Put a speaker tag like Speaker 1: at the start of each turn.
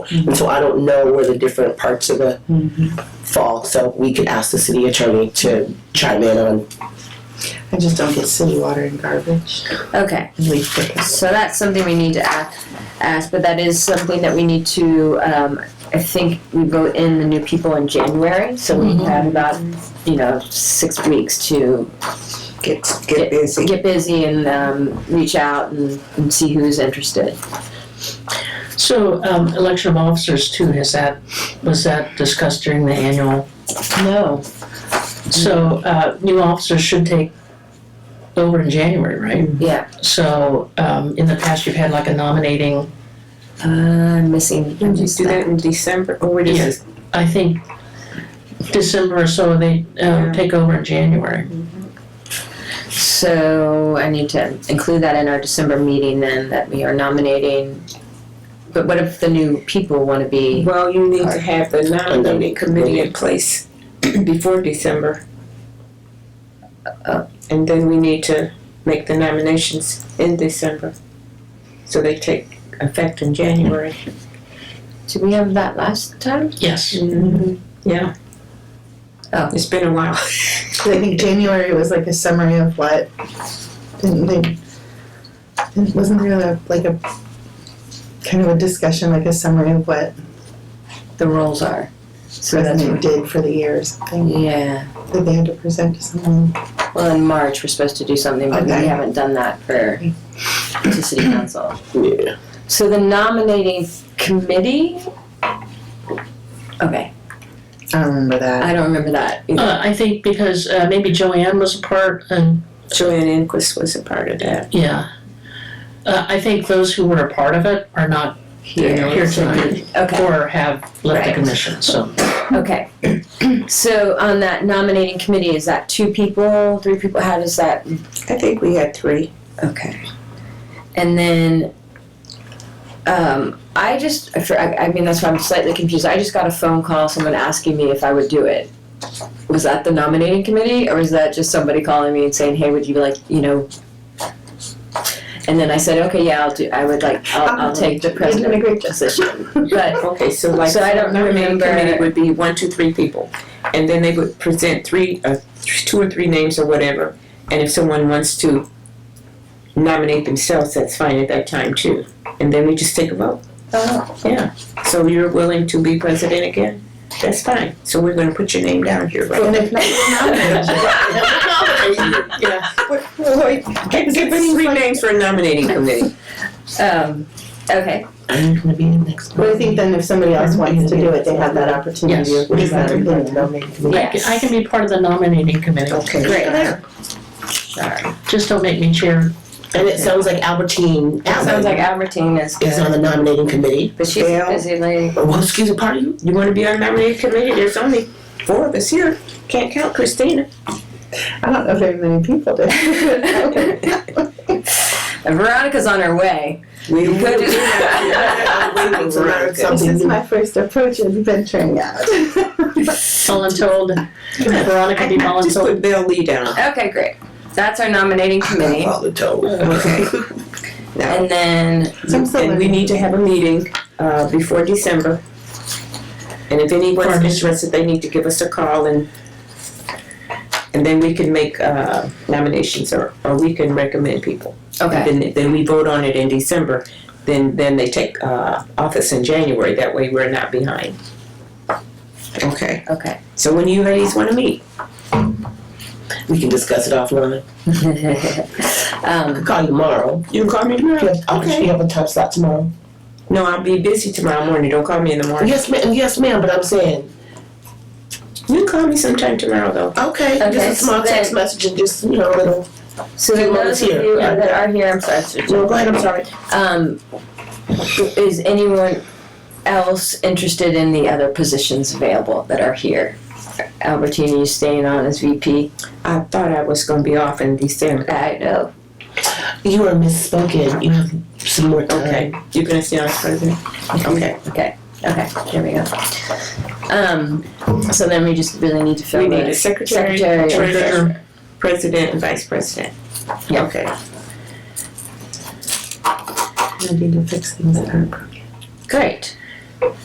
Speaker 1: And so I don't know where the different parts of the
Speaker 2: Mm-hmm.
Speaker 1: fall. So we could ask the city attorney to chime in on.
Speaker 2: I just don't get city water and garbage.
Speaker 3: Okay,
Speaker 2: Leaf pickers.
Speaker 3: so that's something we need to ask, ask, but that is something that we need to, um, I think we vote in the new people in January, so we have about, you know, six weeks to
Speaker 2: Get, get busy.
Speaker 3: get busy and, um, reach out and, and see who's interested.
Speaker 4: So, um, election of officers too, is that, was that discussed during the annual?
Speaker 3: No.
Speaker 4: So, uh, new officers should take over in January, right?
Speaker 3: Yeah,
Speaker 4: So, um, in the past, you've had like a nominating,
Speaker 3: uh, I'm missing.
Speaker 2: Did you do that in December? Or what
Speaker 4: Yeah.
Speaker 2: is
Speaker 4: I think, December or so, they, um, take over in January.
Speaker 3: So I need to include that in our December meeting then, that we are nominating. But what if the new people wanna
Speaker 2: it?
Speaker 3: be,
Speaker 2: Well, you need to have the nominating committee in place before December.
Speaker 3: Uh.
Speaker 2: And then we need to make the nominations in December. So they take effect in January.
Speaker 3: did we have that last time?
Speaker 4: Yes.
Speaker 2: Mm-hmm. Yeah.
Speaker 3: Oh.
Speaker 2: It's been a while.
Speaker 5: I think January was like a summary of what, didn't they, it wasn't really a- like a, kind of a discussion, like a summary of what
Speaker 3: the roles are. So that's
Speaker 5: President did for the year or something,
Speaker 3: yeah.
Speaker 5: that they had to present to someone.
Speaker 3: Well, in March we're supposed to do something, but we
Speaker 5: Okay.
Speaker 3: haven't done that for to city council.
Speaker 1: Yeah.
Speaker 3: So the nominating committee. Okay,
Speaker 5: I don't remember that.
Speaker 3: I don't remember that. either.
Speaker 4: Uh, I think because, uh, maybe Joanne was a part and,
Speaker 2: Joanne Inquist was a part of that.
Speaker 4: yeah. Uh, I think those who were a part of it are not here tonight
Speaker 3: Okay.
Speaker 4: or have left the
Speaker 3: Right.
Speaker 4: commission, so.
Speaker 3: Okay. So on that nominating committee, is that two people, three people? How does that?
Speaker 2: I think we had three.
Speaker 3: Okay. And then. Um, I just, I, I mean, that's why I'm slightly confused. I just got a phone call, someone asking me if I would do it. Was that the nominating committee, or was that just somebody calling me and saying, "Hey, would you like, you know?" And then I said, "Okay, yeah, I'll do. I would like. I'll, I'll take the
Speaker 5: You're doing
Speaker 3: president
Speaker 5: a great job.
Speaker 3: position." But
Speaker 2: Okay, so like.
Speaker 3: So I don't
Speaker 2: the nominating
Speaker 3: remember-
Speaker 2: Committee would be one, two, three people, and then they would present three, uh, th- two or three names or whatever, and if someone wants to nominate themselves, that's fine at that time too, and then we just take a vote.
Speaker 3: oh,
Speaker 2: So you're willing to be president again? That's fine, so we're gonna put your name down here, right?
Speaker 5: And if not, we'll nominate you.
Speaker 4: Yeah,
Speaker 2: Give give us three names for a nominating committee.
Speaker 3: um, okay.
Speaker 1: I'm gonna be in next
Speaker 5: But I
Speaker 1: month.
Speaker 5: think then if somebody else wants to do it, they have that opportunity.
Speaker 4: Yes.
Speaker 5: What is that?
Speaker 4: I can- I can be part of the nominating committee.
Speaker 2: Okay.
Speaker 3: Great. Sorry.
Speaker 4: Just don't make me chair.
Speaker 1: And it sounds like Albertine
Speaker 3: It sounds like
Speaker 1: Allen
Speaker 3: Albertine is
Speaker 1: is
Speaker 3: good,
Speaker 1: on the nominating committee.
Speaker 3: but she's a
Speaker 2: Bill.
Speaker 3: busy lady.
Speaker 1: Well, excuse me, pardon
Speaker 2: You wanna be on nominating committee? There's only four of us here, can't count Christina.
Speaker 5: I don't know very many people do.
Speaker 3: Veronica's on her way.
Speaker 2: We
Speaker 3: You could just-
Speaker 2: I'm waiting to learn
Speaker 5: This
Speaker 2: something
Speaker 5: is my first approach of venturing out.
Speaker 4: Voluntold, Veronica be
Speaker 2: Just
Speaker 4: voluntold.
Speaker 2: put Bill Lee down.
Speaker 3: Okay, great. That's our nominating committee,
Speaker 1: All the toes.
Speaker 2: Okay.
Speaker 3: and then
Speaker 5: I'm still
Speaker 2: And we
Speaker 5: learning.
Speaker 2: need to have a meeting, uh, before December. And if anyone's
Speaker 4: Pardon?
Speaker 2: interested, they need to give us a call and, and then we can make, uh, nominations or, or we can recommend people.
Speaker 3: okay.
Speaker 2: And Then, then we vote on it in December, then, then they take, uh, office in January, that way we're not behind. Okay,
Speaker 3: Okay.
Speaker 2: so when you ladies wanna meet?
Speaker 1: We can discuss it offline. I
Speaker 3: um,
Speaker 1: could call you tomorrow.
Speaker 2: You can call me
Speaker 1: You
Speaker 2: tomorrow.
Speaker 1: have, okay. you have a time slot tomorrow?
Speaker 2: No, I'll be busy tomorrow morning, don't call me in the morning.
Speaker 1: Yes, ma'am. Yes, ma'am. But I'm saying,
Speaker 2: You can call me sometime tomorrow though.
Speaker 1: okay, just
Speaker 3: Okay,
Speaker 1: a small
Speaker 3: so
Speaker 1: text
Speaker 3: then-
Speaker 1: message and just you know a little.
Speaker 3: so then
Speaker 1: Someone's
Speaker 3: those of
Speaker 1: here.
Speaker 3: you that are here, I'm sorry. Sir
Speaker 1: No,
Speaker 3: Jim.
Speaker 1: go ahead. I'm sorry.
Speaker 3: Um, is anyone else interested in the other positions available that are here? Albertina, you staying on as VP?
Speaker 2: I thought I was gonna be off in December.
Speaker 3: I know.
Speaker 1: You are misspoken. You have some more time.
Speaker 2: Okay, you can stay on as president? Okay.
Speaker 3: Okay, there we go. Um, so then we just really need to fill
Speaker 2: We
Speaker 3: the
Speaker 2: need a secretary,
Speaker 3: Secretary.
Speaker 2: treasurer, president, and vice president.
Speaker 3: Yeah.
Speaker 2: Okay.
Speaker 5: I need to fix things that aren't broken.
Speaker 3: Great.